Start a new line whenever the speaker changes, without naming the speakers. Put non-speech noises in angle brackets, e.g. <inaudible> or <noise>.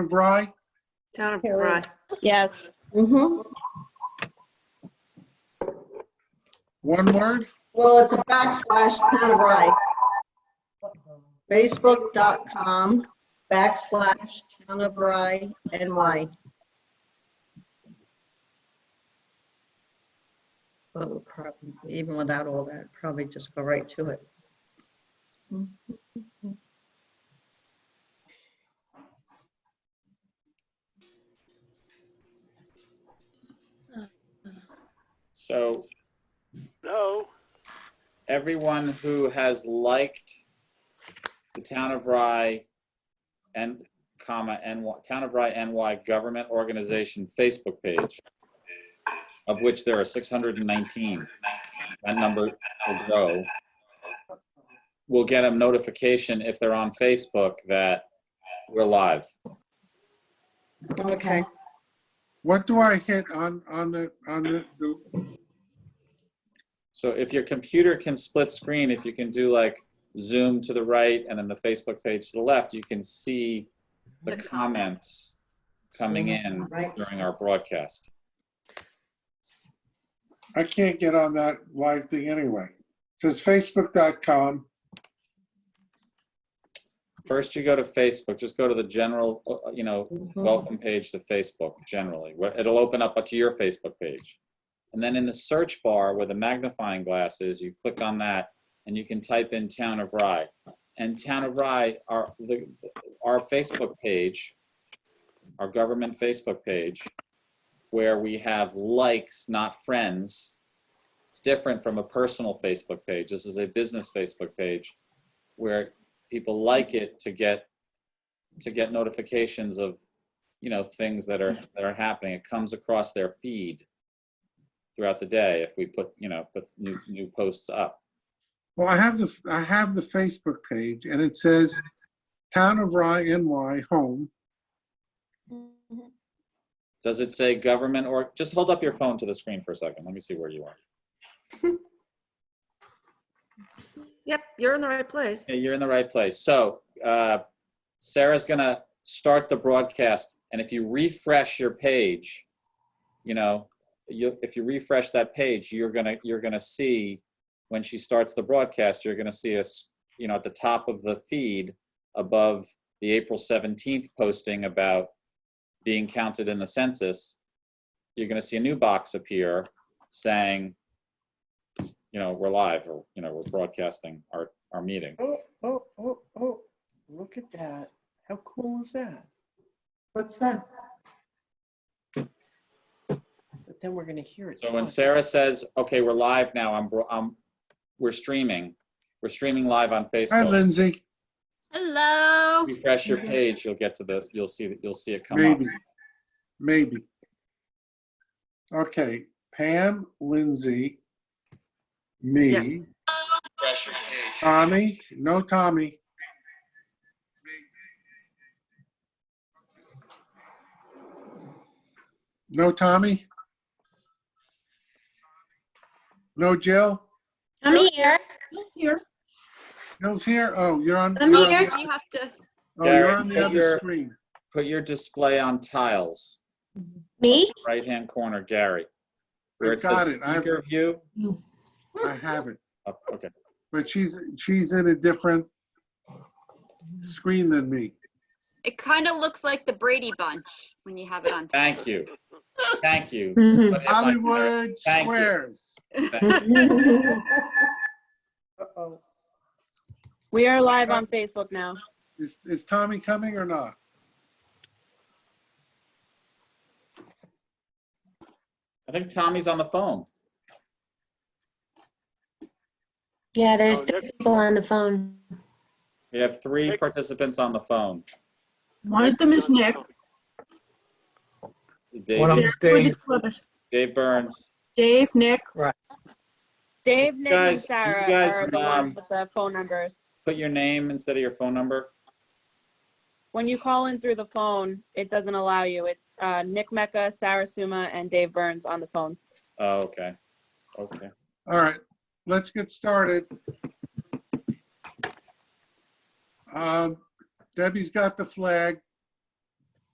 of Rye?
Town of
Carol.
Rye.
Yes.
Mm-hmm.
One word?
Well, it's a backslash town of Rye. Facebook.com backslash town of Rye NY. But we'll probably, even without all that, probably just go right to it.
So
No,
everyone who has liked the Town of Rye and comma NY, Town of Rye NY Government Organization Facebook page, of which there are 619, that number will grow, will get a notification if they're on Facebook that we're live.
Okay.
What do I hit on, on the, on the, the-
So if your computer can split screen, if you can do like zoom to the right and then the Facebook page to the left, you can see the
The
comments coming in
Right.
during our broadcast.
I can't get on that live thing anyway. It says facebook.com.
First, you go to Facebook, just go to the general, uh, you know,
Mm-hmm.
welcome page to Facebook generally. where It'll open up to your Facebook page. And then in the search bar where the magnifying glass is, you click on that and you can type in Town of Rye. And Town of Rye, our, the, our Facebook page, our government Facebook page, where we have likes, not friends. It's different from a personal Facebook page. This is a business Facebook page where people like it to get, to get notifications of you know things that are that are happening it comes across their feed throughout the day if we put you know put new new posts up
Well, I have the, I have the Facebook page and it says Town of Rye NY Home.
does it say government or just hold up your phone to the screen for a second let me see where you are
Yep, you're in the right place.
yeah, you're in the right place so uh, sarah's gonna start the broadcast and if you refresh your page you know you if you refresh that page you're gonna you're gonna see when she starts the broadcast you're gonna see us you know at the top of the feed above the april 17th posting about being counted in the census you're gonna see a new box appear saying you know we're live or you know we're broadcasting our our meeting
Oh, oh, oh, oh, look at that. How cool is that?
What's that?
But then we're gonna hear it.
So when
twice.
Sarah says, "Okay, we're live now. I'm, bro- I'm, we're streaming. We're streaming live on
Hi,
Facebook."
Lindsay.
Hello.
Refresh your page. You'll get to the. You'll see that. You'll see it come
Maybe,
up.
maybe. Okay, Pam, Lindsay, me,
Yes.
Tommy, no Tommy. No Tommy? No Jill?
I'm here.
Here.
Jill's here? Oh, you're on.
I'm
you're on-
here. You have to.
Oh, you're
Gary,
on the
put
other
your-
screen.
Put your display on tiles,
Me?
right hand corner, Gary. Where
I
it says
got it. I-
speaker view.
I have it,
Up, okay.
but she's, she's in a different screen than me.
It kind of looks like the Brady Bunch when you have it on.
Thank you. Thank you.
Mhm.
But if I- <laughs>
Hollywood
Thank you.
Squares.
<laughs>
Uh-oh.
We are live on Facebook now.
Is, is Tommy coming or not?
I think Tommy's on the phone.
Yeah, there's
Oh,
three
next-
people on the phone.
We have three participants on the phone.
One of them is Nick.
Dave,
Dave,
Dave Burns.
Dave, Nick, and
guys- you
Sarah
guys,
are the
um,
ones with the phone numbers.
Put your name instead of your phone number.
When you call in through the phone, it doesn't allow you. It's uh, Nick Mecca, Sarah Suma, and Dave Burns on the phone.
Oh, okay. Okay.
All right, let's get started. Um, Debbie's got the flag.